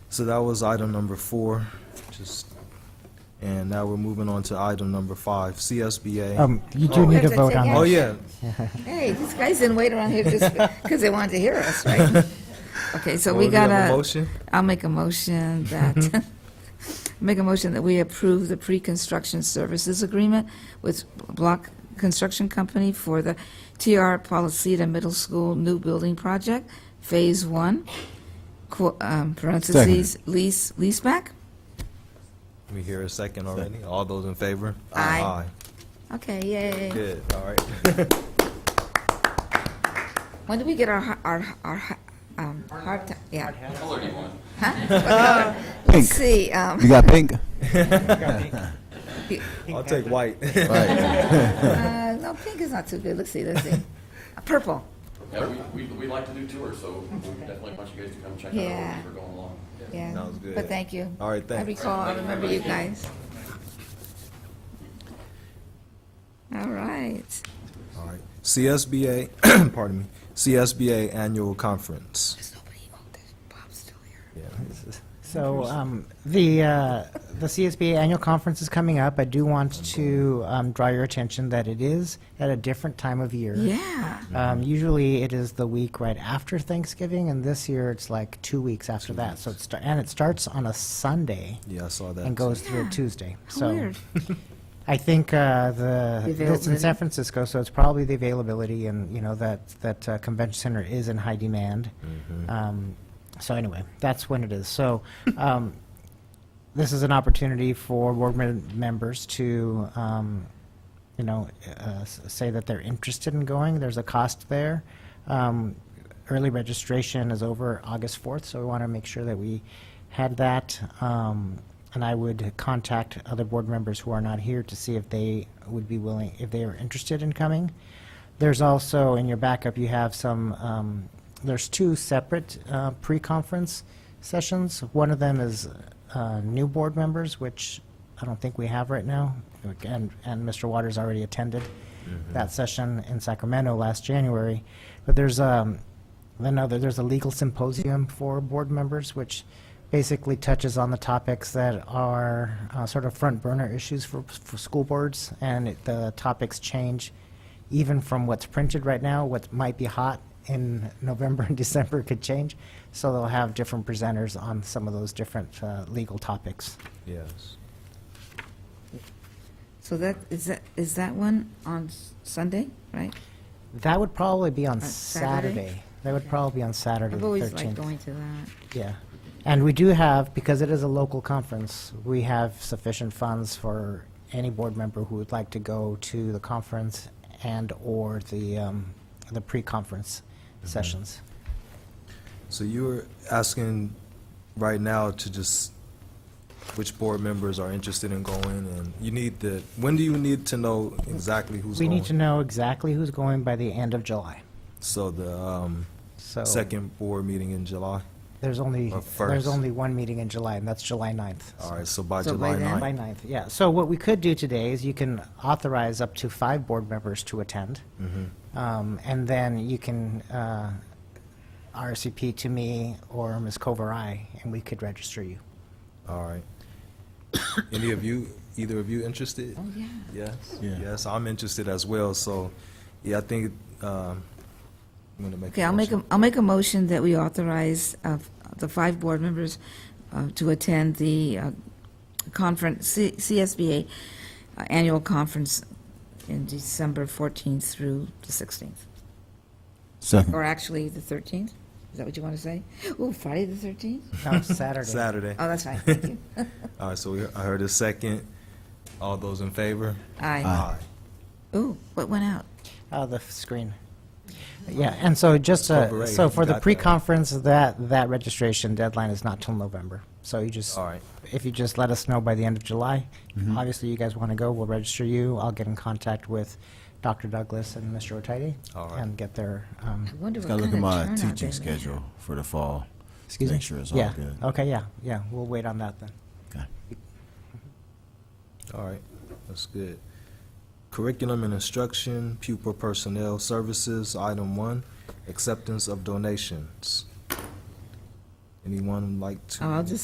So that was item number four, just, and now we're moving on to item number five, CSBA. Um, you do need a vote on Oh, this. yeah, Hey, these guys didn't wait around here just because they wanted to hear us, right? Okay, so we Well, do you have got a to motion? I'll make a motion that, make a motion that we approve the pre-construction services agreement with Block Construction Company for the TR Policita Middle School New Building Project, Phase One, qu- um, parentheses, lease, leaseback? we hear a second already. All those in favor? Aye. Okay, yay. Good, all right. When do we get our, hi- our, our, hi- um, hard time, yeah. Pink. Let's see, um. You got pink? I'll take white. Right. Uh, no, pink is not too good. Let's see, let's see. Uh, Purple. Yeah, we, we, we like to do tours, so we definitely want you guys to come check out Yeah. where we're going along. Yeah. Sounds good. But thank you. All right, I thanks. recall, I remember you guys. All right. All right. CSBA, pardon me, CSBA Annual Conference. There's nobody. Oh, there's Bob's still here. Yeah. So, um, the, uh, the CSBA annual conference is coming up. I do want to, um, draw your attention that it is at a different time of year. Yeah. Um, usually it is the week right after Thanksgiving, and this year it's like two weeks after that. So it's, and it starts on a Sunday Yeah, I saw that. and goes through Yeah. Tuesday. How So weird. I think uh, the, it's The in availability. San Francisco, so it's probably the availability and, you know, that, that uh, convention center is in high demand. Um, So anyway, that's when it is. So um, this is an opportunity for board mem- members to, um, you know, uh, s- say that they're interested in going. There's a cost there. Um, Early registration is over August 4th, so we want to make sure that we had that. Um, And I would contact other board members who are not here to see if they would be willing, if they are interested in coming. There's also, in your backup, you have some, um, there's two separate uh, pre-conference sessions. One of them is uh, new board members, which I don't think we have right now, and, and Mr. Waters already attended that session in Sacramento last January. But there's um, another, there's a legal symposium for board members, which basically touches on the topics that are uh, sort of front burner issues for, for school boards, and it- the topics change even from what's printed right now, what might be hot in November and December could change. So they'll have different presenters on some of those different uh, legal topics. Yes. So that is that is that one on s- Sunday, right? That would probably be on Saturday? Saturday. That would probably be on Saturday, I've the always liked 13th. going to that. Yeah. And we do have, because it is a local conference, we have sufficient funds for any board member who would like to go to the conference and/or the, um, the pre-conference Mm-hmm. sessions. So you were asking right now to just, which board members are interested in going, and you need the, when do you need to know exactly who's We going? need to know exactly who's going by the end of July. So the um, So second board meeting in July? there's only, or there's first. only one meeting in July, and that's July 9th. All right, so by So July by then- July 9th. 9th, yeah. So what we could do today is you can authorize up to five board members to attend. Mm-hmm. Um, And then you can uh, RSVP to me or Ms. Kovarai, and we could register you. All right. Any of you, either of you interested? Oh yeah. Yes, Yeah. yes, I'm interested as well, so, yeah, I think, um, I'm gonna make a Okay, I'll make a, motion. I'll make a motion that we authorize uh, the five board members uh, to attend the uh, conference, C- CSBA uh, annual conference in December 14th through the 16th, Second. or actually the 13th? Is that what you want to say? Oh, Friday the 13th? No, it's Saturday. Saturday. Oh, that's right, thank you. All right, so we- I heard a second. All those in favor? Aye. Ooh, what went out? Oh, the f- screen. Yeah, and so just, uh, Kovarai, so for you the got that. pre-conference, that, that registration deadline is not till November. So you just, All right, if you just let us know by the end of July, Mm-hmm. obviously you guys want to go, we'll register you. I'll get in contact with Dr. Douglas and Mr. Otidy All right. and get their, um, I wonder what Gotta kind of look at turnout my they teaching had. schedule for the fall. excuse me? Make sure it's all Yeah, good. okay, yeah, yeah, we'll wait on that then. Okay. all right, that's good. Curriculum and instruction, pupil personnel services, item one, acceptance of donations. Anyone like to? Oh, I'll just